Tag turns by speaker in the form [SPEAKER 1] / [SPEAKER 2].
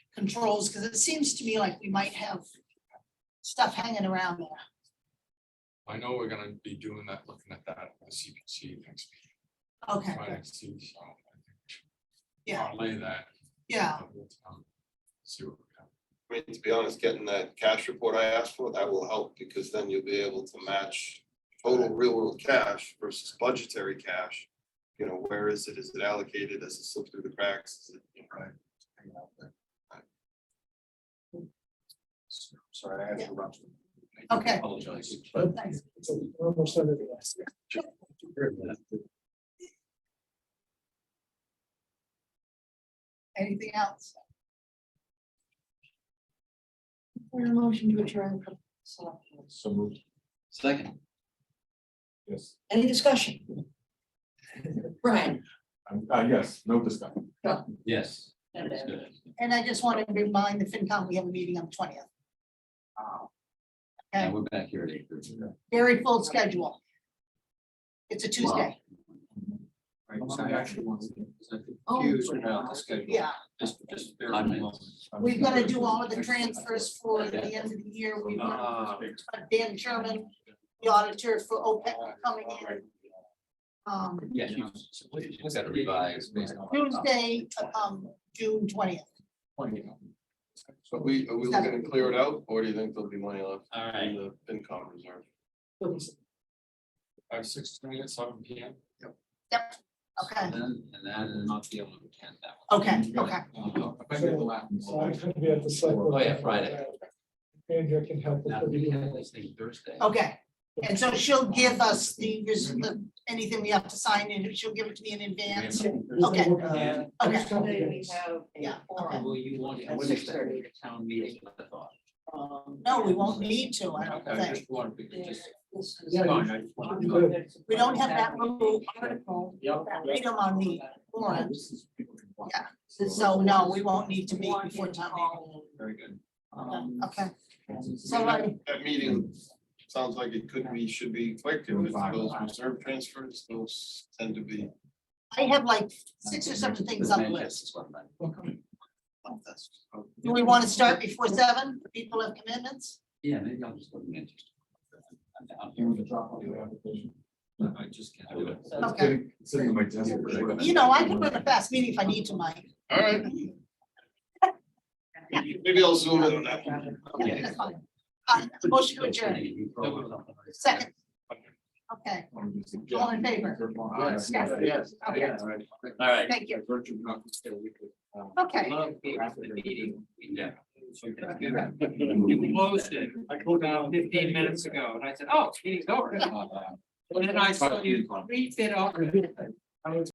[SPEAKER 1] controls, because it seems to me like we might have stuff hanging around there.
[SPEAKER 2] I know we're gonna be doing that, looking at that, at the CPC next week,
[SPEAKER 1] Okay,
[SPEAKER 2] try
[SPEAKER 1] good.
[SPEAKER 2] to see, so. I think we should
[SPEAKER 1] Yeah. Uh.
[SPEAKER 2] Parlay that.
[SPEAKER 1] yeah,
[SPEAKER 2] um, See what we have.
[SPEAKER 3] I mean, to be honest, getting that cash report I asked for, that will help because then you'll be able to match total real world cash versus budgetary cash. You know, where is it? Is it allocated? Does it slip through the cracks? Is it, you know, right? hanging out there?
[SPEAKER 4] Sorry, I had to interrupt. you. I do
[SPEAKER 1] Okay.
[SPEAKER 4] Apologize. but
[SPEAKER 1] thanks.
[SPEAKER 4] it's a- we're almost under the last.
[SPEAKER 1] Anything else?
[SPEAKER 5] motion to adjourn.
[SPEAKER 1] So,
[SPEAKER 2] So moved.
[SPEAKER 6] Second,
[SPEAKER 2] Yes,
[SPEAKER 5] Any discussion? Brian?
[SPEAKER 2] uh, yes, no discussion.
[SPEAKER 6] yes.
[SPEAKER 5] That's
[SPEAKER 6] good.
[SPEAKER 1] And I just want to remind the FinCom, we have a meeting on the twentieth.
[SPEAKER 6] And we're back here at eight thirty.
[SPEAKER 1] Very full schedule. It's a Tuesday,
[SPEAKER 4] I actually want to
[SPEAKER 5] Oh,
[SPEAKER 4] confused about the schedule.
[SPEAKER 1] yeah.
[SPEAKER 4] Just, just. bear
[SPEAKER 6] I'm
[SPEAKER 4] with me.
[SPEAKER 1] We've got to do all of the transfers for the end of the year. We've got
[SPEAKER 4] Ah,
[SPEAKER 1] Dan Sherman, the auditor for OPEC coming in. um,
[SPEAKER 6] Yes, you
[SPEAKER 4] Let's-
[SPEAKER 6] just gotta revise based on.
[SPEAKER 1] Tuesday, um, June twentieth.
[SPEAKER 3] So we, are we looking to clear it out or do you think there'll be money left
[SPEAKER 6] All
[SPEAKER 3] in the FinCom reserve?
[SPEAKER 2] Five, six, twenty, seven P M.
[SPEAKER 1] Okay,
[SPEAKER 6] And then, and then. Not be able to attend that
[SPEAKER 1] okay, okay.
[SPEAKER 7] So I'm gonna be at the select. board.
[SPEAKER 6] Oh, yeah, Friday.
[SPEAKER 7] Andrea can help.
[SPEAKER 6] Now,
[SPEAKER 7] with
[SPEAKER 6] we have
[SPEAKER 7] the-
[SPEAKER 6] this thing Thursday.
[SPEAKER 1] Okay, and so she'll give us the, res- the, anything we have to sign in, she'll give it to me in advance. Okay.
[SPEAKER 7] Uh,
[SPEAKER 1] Okay,
[SPEAKER 7] couple days.
[SPEAKER 1] Yeah,
[SPEAKER 5] Yeah.
[SPEAKER 1] okay.
[SPEAKER 6] Will you want, I
[SPEAKER 5] At
[SPEAKER 6] wouldn't expect
[SPEAKER 5] 6:30.
[SPEAKER 6] a town meeting, I thought.
[SPEAKER 1] no, we won't need to, I don't
[SPEAKER 4] Okay,
[SPEAKER 1] think.
[SPEAKER 4] just wanted to just.
[SPEAKER 7] Yeah,
[SPEAKER 4] Fine, I just wanted to-
[SPEAKER 1] We don't have that little article,
[SPEAKER 4] Yep.
[SPEAKER 1] that freedom on the warrant,
[SPEAKER 4] This is-
[SPEAKER 1] so no, we won't need to meet before town meeting.
[SPEAKER 4] Very good.
[SPEAKER 6] Um,
[SPEAKER 1] Okay, so I,
[SPEAKER 3] That meeting sounds like it could be, should be quick and with those reserve transfers, those tend to be.
[SPEAKER 1] I have like six or
[SPEAKER 6] uh,
[SPEAKER 1] seven things on the list.
[SPEAKER 4] Oh,
[SPEAKER 1] Do we want to start before seven? People have commitments?
[SPEAKER 6] Yeah, maybe I'll just go to Manchester. I'm down
[SPEAKER 4] Here
[SPEAKER 6] here.
[SPEAKER 4] with the drop off your application. I just can't do it.
[SPEAKER 1] Okay,
[SPEAKER 2] Sitting in my desk. right?
[SPEAKER 1] you know, I can run a fast meeting if I need to, Mike.
[SPEAKER 3] All right. Maybe I'll zoom in on that.
[SPEAKER 1] Yeah, that's fine. Uh, motion to adjourn, second. Okay, all in favor?
[SPEAKER 4] Yes,
[SPEAKER 1] Yes.
[SPEAKER 4] yes,
[SPEAKER 1] Okay.
[SPEAKER 4] yes.
[SPEAKER 6] All right.
[SPEAKER 1] Thank you.
[SPEAKER 4] Virtual conference, so we could, um,
[SPEAKER 1] Okay,
[SPEAKER 6] Love being at the meeting. Yeah.
[SPEAKER 8] You closed it, I pulled down fifteen minutes ago, and I said, oh, meeting's over. And then I saw you read it off.